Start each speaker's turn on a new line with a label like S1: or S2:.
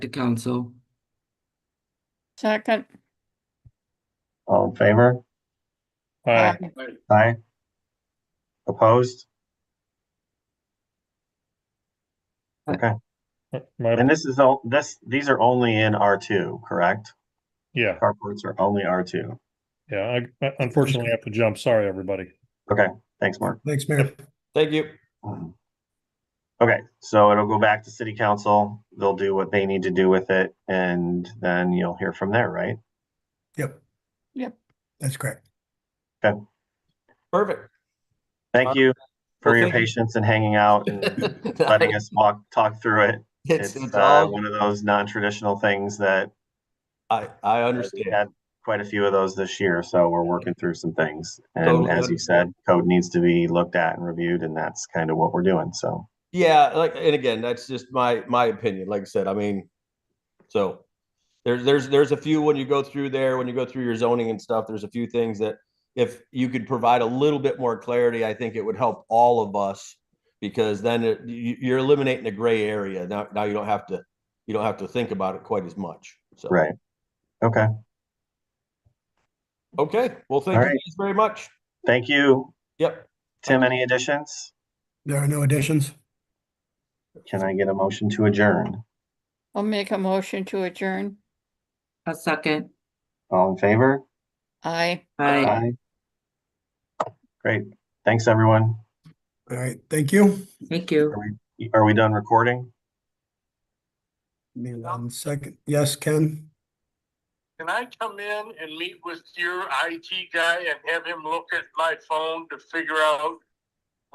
S1: to council.
S2: Second.
S3: All in favor?
S4: Aye.
S3: Aye. Opposed?
S4: My,
S3: And this is all, this, these are only in R two, correct?
S4: yeah,
S3: Carports are only R two.
S4: yeah. I- I unfortunately have to jump. Sorry, everybody.
S3: Thanks, Mark.
S5: Thanks, Mayor.
S6: Thank you.
S3: Okay, so it'll go back to city council. They'll do what they need to do with it and then you'll hear from there, right?
S5: Yep.
S2: Yep.
S5: That's correct.
S6: Perfect.
S3: Thank you for
S6: Well,
S3: your
S6: thank you.
S3: patience and hanging out and letting us walk, talk through it.
S6: It's,
S3: It's
S6: it's
S3: uh,
S6: all,
S3: one of those non-traditional things that
S6: I, I
S3: Uh, we
S6: understand.
S3: had Quite a few of those this year, so we're working through some things. And
S6: Totally
S3: as you said, code needs to be looked at and reviewed, and that's kind of what we're doing, so.
S6: Yeah, like, and again, that's just my, my opinion. Like I said, I mean, so there's, there's, there's a few when you go through there, when you go through your zoning and stuff, there's a few things that if you could provide a little bit more clarity, I think it would help all of us because then it- you, you're eliminating the gray area. Now, now you don't have to, you don't have to think about it quite as much. So,
S3: Right. Okay,
S6: okay. Well, thank
S3: All
S6: you
S3: right.
S6: guys very much.
S3: thank you.
S6: Yep.
S3: Tim, any additions?
S5: There are no additions.
S3: Can I get a motion to adjourn?
S2: I'll make a motion to adjourn.
S1: A second.
S3: All in favor?
S2: Aye.
S1: Aye.
S3: Aye. Great, thanks, everyone.
S5: All right, thank you.
S1: Thank you.
S3: Are we done recording?
S5: Give me one second. Yes, Ken?
S7: Can I come in and meet with your IT guy and have him look at my phone to figure out